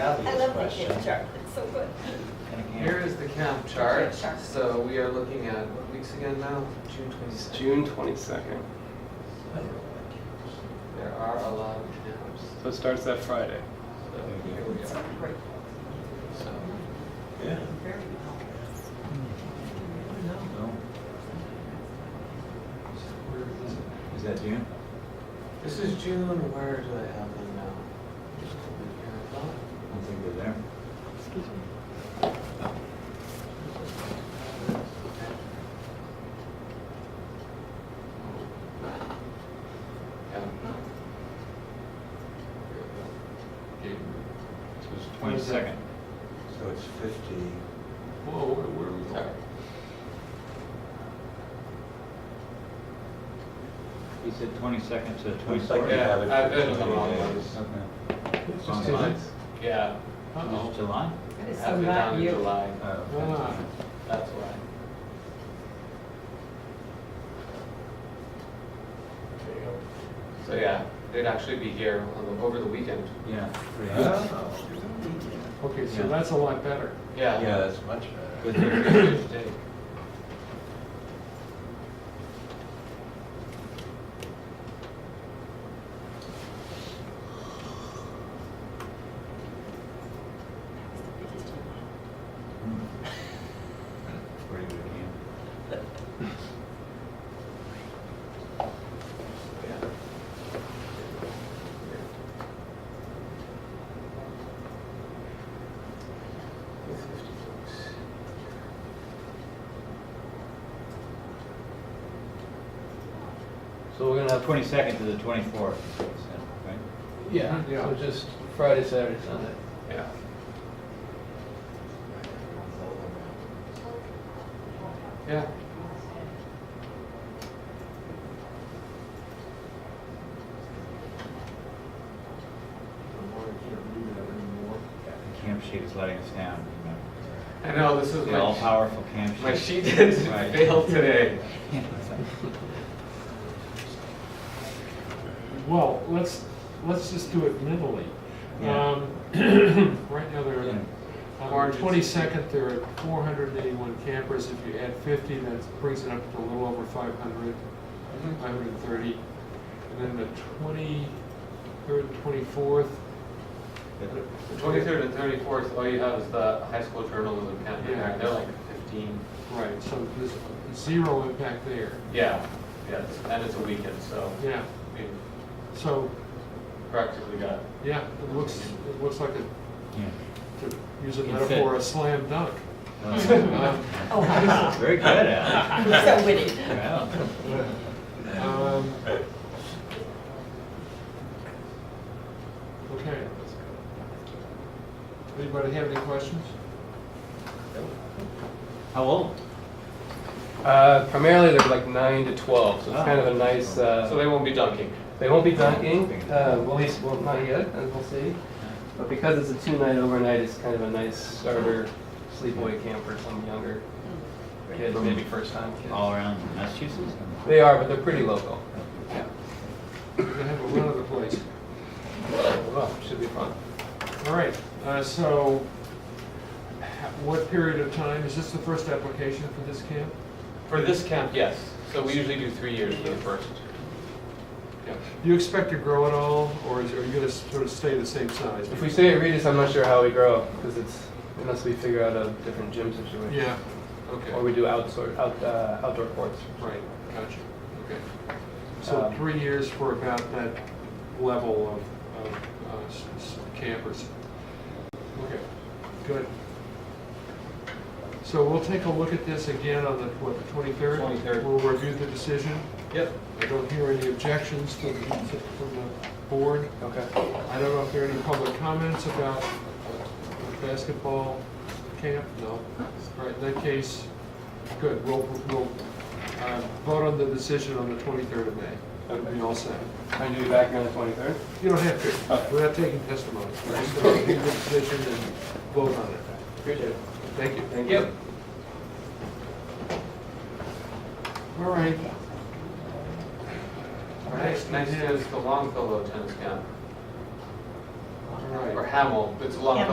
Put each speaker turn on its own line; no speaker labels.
I love the
question.
kid chart, it's so good.
Here is the camp chart.
Chart.
So we are looking at, what weeks again now? June
It's
26th.
June 22nd,
There are a lot of camps.
so it starts that Friday.
So here we
It's
are.
great.
So
Yeah.
Very good.
No. Is that June?
this is June. Where do I have them now?
I don't think they're there.
Yeah.
So it's twenty-second.
So it's fifty.
Whoa, where where are we
Sorry.
going?
He said twenty-second to
Twenty-second.
twenty-fourth.
Yeah, I've been to the wrong ones.
Okay.
It's just two
Online?
months.
Yeah.
Is it July?
It's
Have it down
not
in
you.
July.
Oh,
Ah, That's why. There you go. So yeah, they'd actually be here on the, over the weekend.
Yeah.
Yeah.
Okay,
Yeah.
so that's a lot better.
Yeah,
Yeah.
that's much
But
better.
the-
Tuesday.
Pretty good game.
Yeah.
So we're gonna have twenty-second to the twenty-fourth, right?
Yeah, so just Friday, Saturday, Sunday.
Hmm. Yeah. Yeah.
The camp sheet is letting us down,
I know, this
you
is
know. The
my,
all-powerful camp sheet.
my sheet did
Right.
fail today.
Well, let's, let's just do it mentally.
Yeah.
Um, Right now, there
Yeah.
are, on
Orange
the
is-
twenty-second, there are four hundred and eighty-one campers. If you add fifty, that brings it up to a little over five hundred,
Mm-hmm.
five hundred and thirty. And then the twenty-third, twenty-fourth,
The twenty-third and thirty-fourth, all you have is the high school journalism campaign,
Yeah.
right? They're like fifteen.
right, so there's zero impact there.
Yeah, yeah, it's- and it's a weekend, so
Yeah,
we
so,
practically got,
yeah, it looks, it looks like a,
Yeah.
to use a
It fit.
metaphor, a slam dunk.
Well,
Um,
Oh, I'm
Very good, Al.
so witty.
Wow.
Um, Okay. Anybody have any questions?
How old?
Uh, Primarily, they're like nine to 12, so it's kind of a nice, uh,
so they won't be dunking.
They won't be dunking, uh, well, at least, well, not yet, as we'll see. But because it's a two-night overnight, it's kind of a nice starter sleepaway camp for some younger kids, maybe first-time
All
kids.
around Massachusetts?
They are, but they're pretty local. Yeah.
We're gonna have a run of the place.
Well, should be fun.
All right, uh, so h- what period of time, is this the first application for this camp?
For this camp, yes, so we usually do three years for the first. Yeah.
Do you expect to grow at all, or is- are you gonna sort of stay the same size?
If we stay at Regis, I'm not sure how we grow, because it's, unless we figure out a different gym situation.
Yeah,
Or
okay,
we do outdoor, out, uh, outdoor courts.
right, gotcha, okay. So
Um,
three years for about that level of, of uh, s- s- campers. Okay, good. So we'll take a look at this again on the, what, the 23rd?
23rd.
We'll review the decision.
Yep.
I don't hear any objections from, from the board.
Okay.
I don't know if there are any public comments about basketball camp, no. All right, in that case, good, we'll, we'll uh, vote on the decision on the 23rd of May. That'll be all set.
Are you back here on the 23rd?
You don't have to, we're not taking testimony. We're just going to the decision and vote on it.
Appreciate it.
Thank you.
Thank you.
Yep.
All right. All right,
Next, next is the Longfellow tennis camp.
All
Right.
or Hamel, it's a lot
Hamel.